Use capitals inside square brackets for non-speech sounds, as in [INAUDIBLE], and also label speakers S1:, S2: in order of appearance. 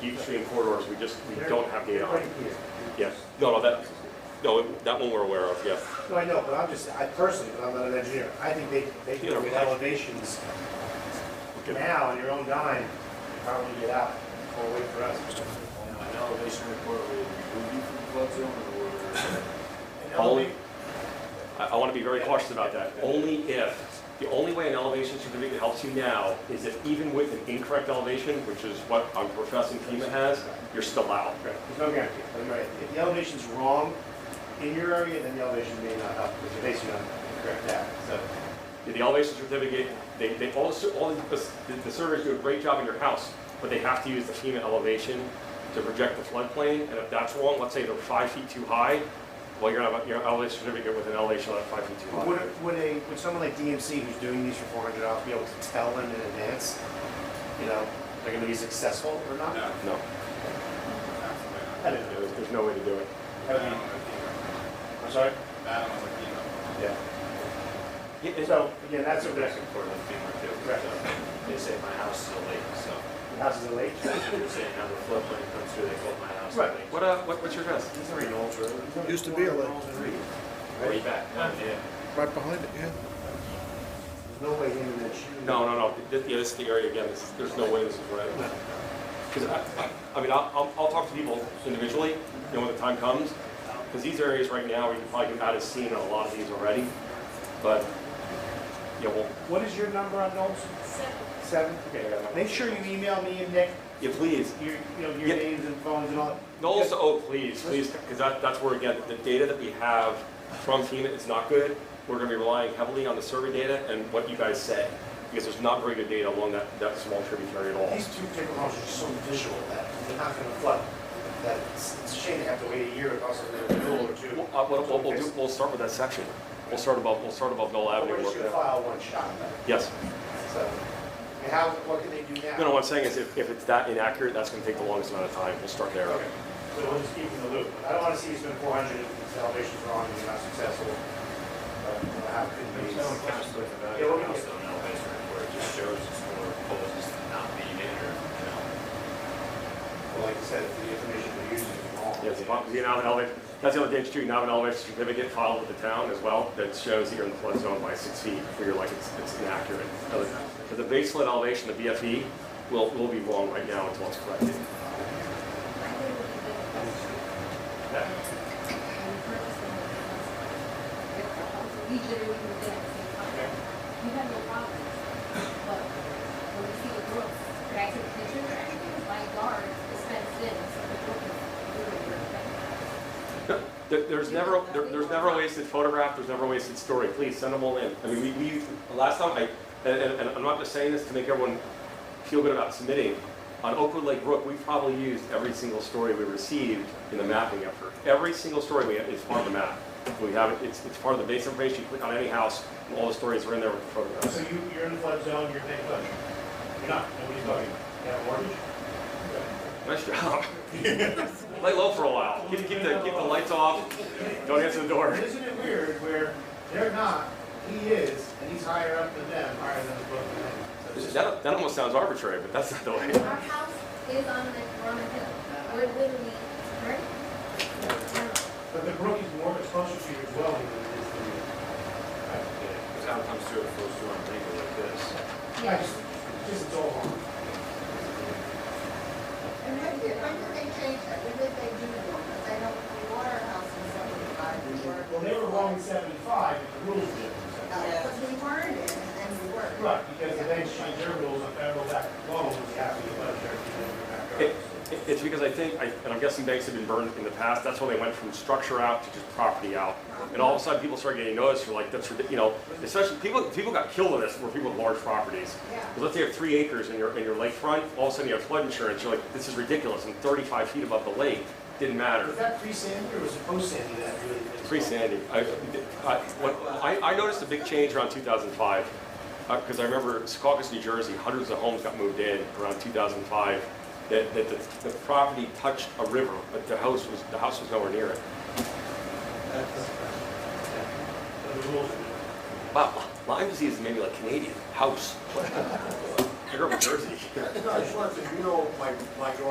S1: Beaver Stream corridors, we just, we don't have data on.
S2: Right here.
S1: Yes, no, no, that, no, that one we're aware of, yes.
S2: No, I know, but I'm just, I personally, because I'm not an engineer, I think they, they
S1: Yeah,
S2: do it with
S1: right.
S2: elevations
S1: Okay.
S2: now on your own dime, you probably get out, or wait for us.
S3: An elevation report would remove you from the flood zone or?
S2: An
S1: Only,
S2: eleva-
S1: I, I want to be very cautious about that. Only if, the only way an elevation certificate helps you now is if even with an incorrect elevation, which is what I'm professing FEMA has, you're still out.
S2: There's no guarantee, but you're right, if the elevation's wrong in your area, then the elevation may not help, because you're basically on correct that, so.
S1: The elevation certificate, they, they, all, the sur- all the, the- the surveyors do a great job in your house, but they have to use the FEMA elevation to project the floodplain, and if that's wrong, let's say they're five feet too high, well, you're gonna have your elevation certificate with an elevation of five feet too high.
S2: Would, would a, would someone like DMC who's doing these for four hundred dollars be able to tell them in advance, you know, they're gonna be successful or not?
S3: No.
S1: No,
S2: I don't know.
S1: there's, there's no way to do it.
S2: I mean, I'm sorry?
S3: That one's like, you know.
S2: Yeah.
S1: Yeah, it's-
S2: So, again, that's a risk.
S4: Or the FEMA too.
S2: Correct.
S4: So They say my house is a lake, so
S2: The house is a lake.
S4: they're saying how the floodplain comes through, they call my house a
S2: Right.
S4: lake.
S1: What, uh, what, what's your guess?
S2: He's already an old road.
S5: Used to be a lake.
S4: Way back, not there.
S5: Right behind it, yeah.
S2: There's no way in and that shoe.
S1: No, no, no, Th- th- yeah, this is the area again, This- there's no way this is right. Because I, I- I mean, I'll, I'll- I'll talk to people individually, you know, when the time comes, because these areas right now, we can probably get out of scene on a lot of these already, but, yeah, well,
S2: What is your number on Knowles? Seven? Okay.
S1: yeah, I know.
S2: Make sure you email me and Nick,
S1: yeah, please,
S2: your, you know, your
S1: Yeah.
S2: names and phones and all.
S1: no, also, oh, please, please, because that, that's where, again, the data that we have from FEMA is not good. We're gonna be relying heavily on the survey data and what you guys say, because there's not very good data along that, that small tributary at all.
S2: These two particular homes are so visual that they're not gonna flood. That it's, it's a shame to have to wait a year and also a renewal or two.
S1: Well, uh, What what we'll do, we'll start with that section. We'll start above, we'll start above Knoll
S2: But
S1: Avenue.
S2: We're just
S1: work
S2: gonna
S1: down.
S2: file one shot,
S1: Yes.
S2: so. And how, what can they do now?
S1: No, no, what I'm saying is if, if it's that inaccurate, that's gonna take the longest amount of time. We'll start there.
S2: Okay, so we'll just keep in the loop. I don't wanna see you spend four hundred if the elevation's wrong and you're not successful. But we'll have good
S4: There's
S2: news.
S4: no counselor value of the house on an elevation report, it just shows it's more proposals to not being in or, you know.
S2: Well, like I said, the information we're using is wrong.
S1: Yes, if I'm- you know, an elevation, that's the other thing, too, you have an elevation certificate filed with the town as well that shows that you're in the flood zone by six feet, where you're like, it's, it's inaccurate. Because the base flood elevation, the BFE, will, will be wrong right now until it's corrected.
S6: We literally were there at the same time. You have no problem, but when we see the brook, when I took pictures, my yard is fenced in, so the brook is literally right there.
S1: There, there's never, there, there's never a wasted photograph, there's never a wasted story, please send them all in. I mean, we, we, last time I, and, and- and I'm not just saying this to make everyone feel good about submitting, on Oakwood Lake Brook, we probably used every single story we received in the mapping effort. Every single story we, is part of the map. We have, it. it's, it's part of the base information, you click on any house, and all the stories are in there with the
S2: So
S1: photographs.
S2: you, you're in the flood zone, you're paying attention. You're not, nobody's talking. You have a mortgage?
S1: Nice job. [LAUGHS] Lay low for a while, keep, keep the, keep the lights off, don't answer the door.
S2: Isn't it weird where they're not, he is, and he's higher up than them, higher than the book than them? So it's just-
S1: That, that almost sounds arbitrary, but that's not the way.
S6: Our house is on the, we're on a hill, we're literally, right? Now,
S2: But the brook is more closer to your dwelling than it is to you.
S4: Because how it comes through, it flows through on Lingle like this.
S2: I
S6: Yeah.
S2: just, just it's all wrong.
S7: And when did, when did they change that? When did they do that? Because I know the water house in seventy-five, we were.
S2: Well, they were wrong in seventy-five, and the rules did.
S7: Because we weren't in, and then we were.
S2: Right, because the banks changed their rules on federal back loans, you have to get a budget if you
S1: It-
S2: don't go back up.
S1: it- It's because I think, I- and I'm guessing banks have been burned in the past, that's when they went from structure out to just property out. And all of a sudden, people started getting noticed, for like, that's, ridic- you know, especially, people, people got killed with this, were people with large properties.
S7: Yeah.
S1: 'Cause Let's say you have three acres in your, in your lakefront, all of a sudden you have flood insurance, you're like, this is ridiculous, and 35 feet above the lake, didn't matter.
S2: Was that pre-Sandy or was it post-Sandy that really? things-
S1: Pretty sandy. I, I, what- I I noticed a big change around 2005, because uh, I remember Secaucus, New Jersey, hundreds of homes got moved in around 2005, that, that the, the property touched a river, but the house was, the house was nowhere near it.
S2: The rules.
S1: Wow, Lyme disease made me like Canadian, house. [LAUGHS] I grew up in Jersey.
S8: No, I just wanted to, you know, my, my yard